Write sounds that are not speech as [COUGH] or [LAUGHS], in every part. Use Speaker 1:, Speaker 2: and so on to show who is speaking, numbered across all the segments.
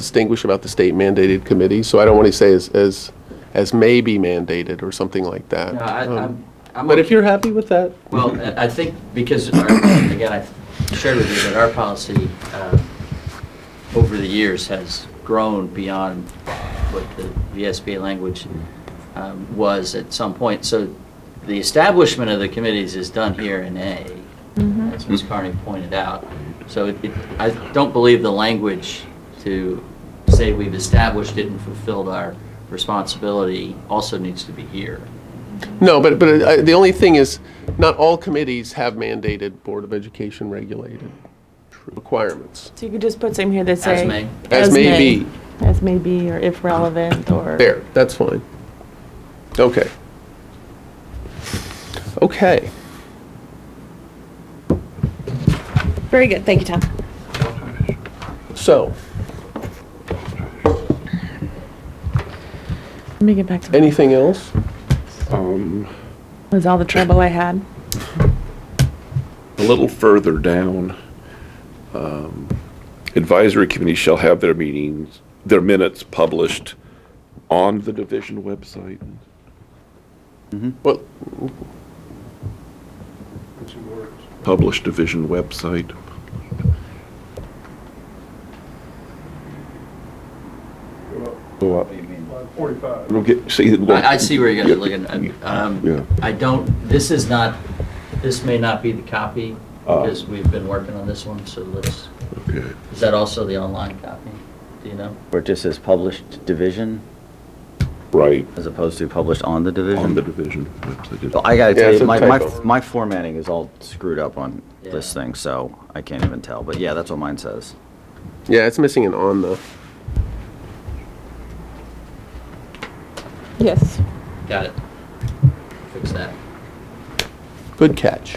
Speaker 1: distinguish about the state mandated committee, so I don't want to say as, as, as may be mandated or something like that.
Speaker 2: No, I-
Speaker 1: Um,
Speaker 2: I'm- I'm
Speaker 1: But if
Speaker 2: okay.
Speaker 1: you're happy with that,
Speaker 2: Well, I- I think because, our- again, I shared with you that our policy uh, over the years has grown beyond what the VSBA language um, was at some point. So the establishment of the committees is done here in A, as Ms. Carney pointed out. So it- it- I don't believe the language to say we've established it and fulfilled our responsibility also needs to be here.
Speaker 1: no, but, but I- the only thing is, not all committees have mandated Board of Education regulated requirements.
Speaker 3: So you could just put something here that
Speaker 2: As
Speaker 3: say.
Speaker 2: may.
Speaker 1: As may be.
Speaker 3: As may be, or if relevant, or.
Speaker 1: There, that's fine. Okay. Okay.
Speaker 4: Very good, thank you, Tom.
Speaker 1: So,
Speaker 3: Let me get back to, that
Speaker 1: anything else?
Speaker 5: Um,
Speaker 3: was all the trouble I had.
Speaker 5: a little further down, um, advisory committees shall have their meetings, their minutes published on the division website.
Speaker 1: Well,
Speaker 5: Published division website. Go up. It'll get- see, it will-
Speaker 2: I, I see where you guys are looking.
Speaker 5: Yeah.
Speaker 2: Um, I don't, this is not, this may not be the copy,
Speaker 5: Ah.
Speaker 2: because we've been working on this one, so let's,
Speaker 5: Okay.
Speaker 2: is that also the online copy? Do you know?
Speaker 6: Where it just says published division
Speaker 5: Right,
Speaker 6: as opposed to published on the division?
Speaker 5: on the division website.
Speaker 6: Well, I gotta
Speaker 1: Yeah,
Speaker 6: tell
Speaker 1: it's
Speaker 6: you,
Speaker 1: a
Speaker 6: my, my,
Speaker 1: typo.
Speaker 6: my formatting is all screwed up on this
Speaker 2: Yeah.
Speaker 6: thing, so I can't even tell. But yeah, that's what mine says.
Speaker 1: yeah, it's missing an on the,
Speaker 3: Yes.
Speaker 2: Got it. Fix that.
Speaker 1: good catch.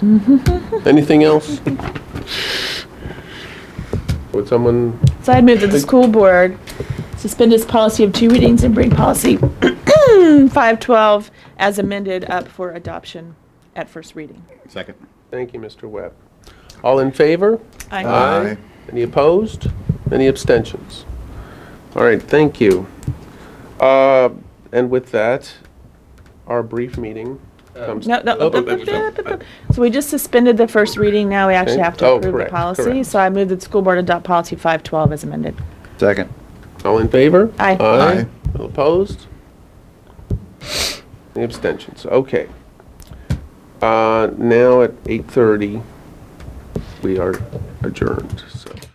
Speaker 1: Anything else? [LAUGHS] Would someone,
Speaker 3: So I'd move that the school board suspend its policy of two readings and bring policy [CLEARS THROAT] 512 as amended up for adoption at first reading.
Speaker 6: Second.
Speaker 1: thank you, Mr. Webb. All in favor?
Speaker 3: Aye.
Speaker 1: Ah. Any opposed? Any abstentions? All right, thank you. Uh, And with that, our brief meeting comes.
Speaker 3: Uh, No, no.
Speaker 1: Oh,
Speaker 3: up, up,
Speaker 1: oh,
Speaker 3: up, up, up, up. So we just suspended the first reading, now we actually
Speaker 1: Okay.
Speaker 3: have to
Speaker 1: Oh,
Speaker 3: approve the
Speaker 1: correct,
Speaker 3: policy.
Speaker 1: correct.
Speaker 3: So I move that the school board adopt policy 512 as amended.
Speaker 6: Second.
Speaker 1: All in favor?
Speaker 3: Aye.
Speaker 1: Aye. All opposed? Any abstentions? Okay. Uh, Now at 8:30, we are adjourned, so.